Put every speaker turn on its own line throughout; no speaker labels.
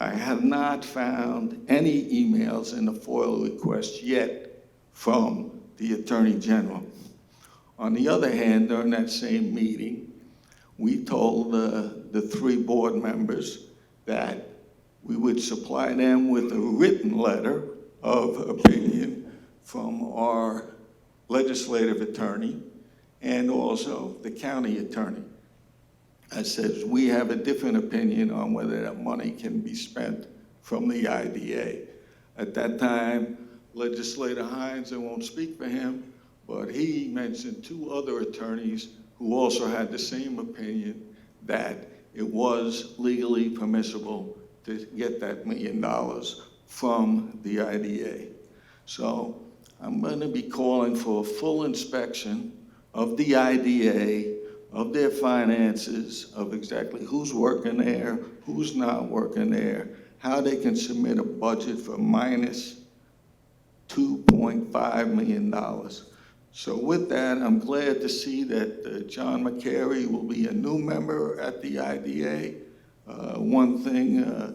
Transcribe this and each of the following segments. I have not found any emails in the FOIL request yet from the Attorney General. On the other hand, during that same meeting, we told uh, the three board members that we would supply them with a written letter of opinion from our legislative attorney and also the county attorney that says, we have a different opinion on whether that money can be spent from the IDA. At that time, legislator Hines, I won't speak for him, but he mentioned two other attorneys who also had the same opinion that it was legally permissible to get that million dollars from the IDA. So I'm going to be calling for a full inspection of the IDA, of their finances, of exactly who's working there, who's not working there, how they can submit a budget for minus $2.5 million. So with that, I'm glad to see that uh, John McCary will be a new member at the IDA. Uh, One thing, uh,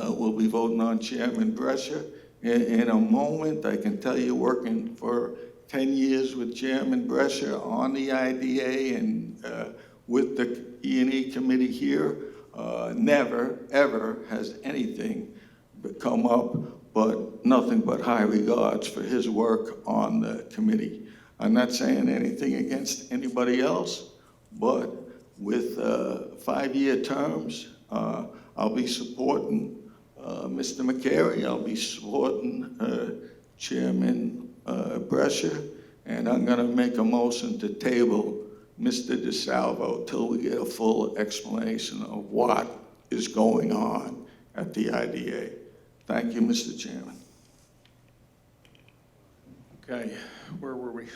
uh, we'll be voting on Chairman Brescher in, in a moment. I can tell you, working for 10 years with Chairman Brescher on the IDA and uh, with the E and E committee here, uh, never, ever has anything come up, but nothing but high regards for his work on the committee. I'm not saying anything against anybody else, but with uh, five-year terms, uh, I'll be supporting uh, Mr. McCary, I'll be supporting uh, Chairman uh, Brescher, and I'm going to make a motion to table Mr. DeSalvo till we get a full explanation of what is going on at the IDA. Thank you, Mr. Chairman.
Okay, where were we?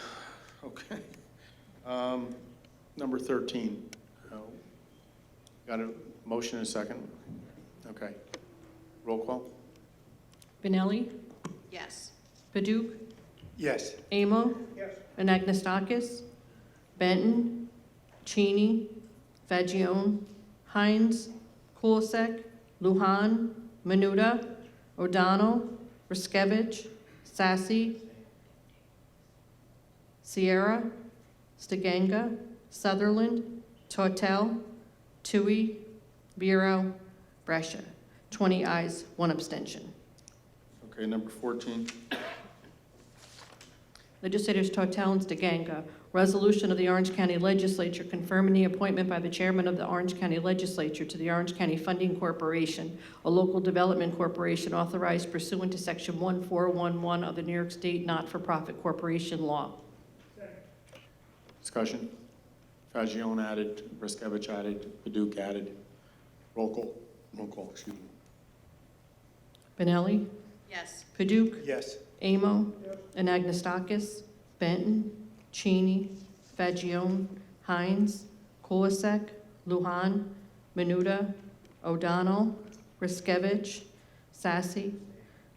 Okay. Um, Number 13. Oh, Got a motion and a second? Okay. Roll call?
Benelli?
Yes.
Paduk?
Yes.
Amo? Yes. Anagnestakis? Benton? Cheney? Fagion? Hines? Kulisek? Luhan? Menuda? O'Donnell? Riskevich? Sassy? Sierra? Stiganga? Sutherland? Tortel? Tui? Vero? Brescia. 20 eyes, one abstention.
Okay, number 14.
Legislators Tortel and DeGanga, resolution of the Orange County Legislature confirming the appointment by the chairman of the Orange County Legislature to the Orange County Funding Corporation, a local development corporation authorized pursuant to Section 1411 of the New York State Not-for-Profit Corporation Law.
Discussion? Fagion added, Riskevich added, Paduk added. Roll call? Roll call, excuse me.
Benelli?
Yes.
Paduk?
Yes.
Amo? Anagnestakis? Benton? Cheney? Fagion? Hines? Kulisek? Luhan? Menuda? O'Donnell? Riskevich? Sassy?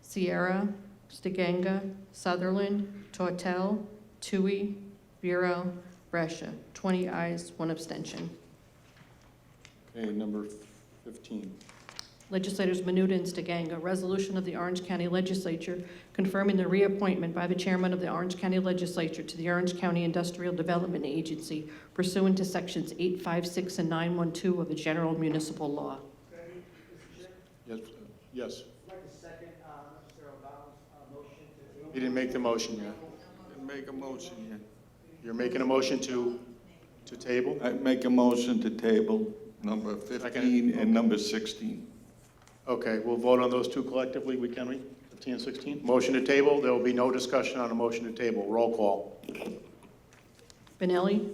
Sierra? Stiganga? Sutherland? Tortel? Tui? Vero? Brescia. 20 ayes, one abstention.
Okay, number 15.
Legislators Menuda and Stiganga, resolution of the Orange County Legislature confirming the reappointment by the chairman of the Orange County Legislature to the Orange County Industrial Development Agency pursuant to sections 856 and 912 of the general municipal law.
Yes, uh, yes.
I'd like to second uh, Mr. O'Donnell's uh, motion to
He didn't make the motion yet.
Make a motion,
You're making a motion to, to table?
I make a motion to table number 15 and number 16.
Okay, we'll vote on those two collectively, we can, we, 15 and 16? Motion to table, there will be no discussion on a motion to table. Roll call.
Benelli?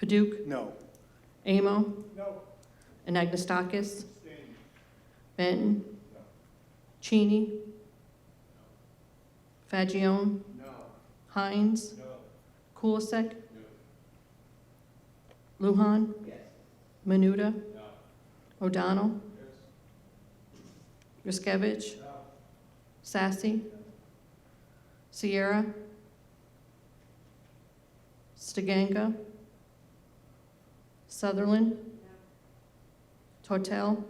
Paduk?
No.
Amo? No. Anagnestakis? Benton? Cheney? Fagion? No. Hines? No. Kulisek? Luhan? Yes. Menuda? No. O'Donnell? Yes. Riskevich? No. Sassy? Sierra? Stiganga? Sutherland? Tortel?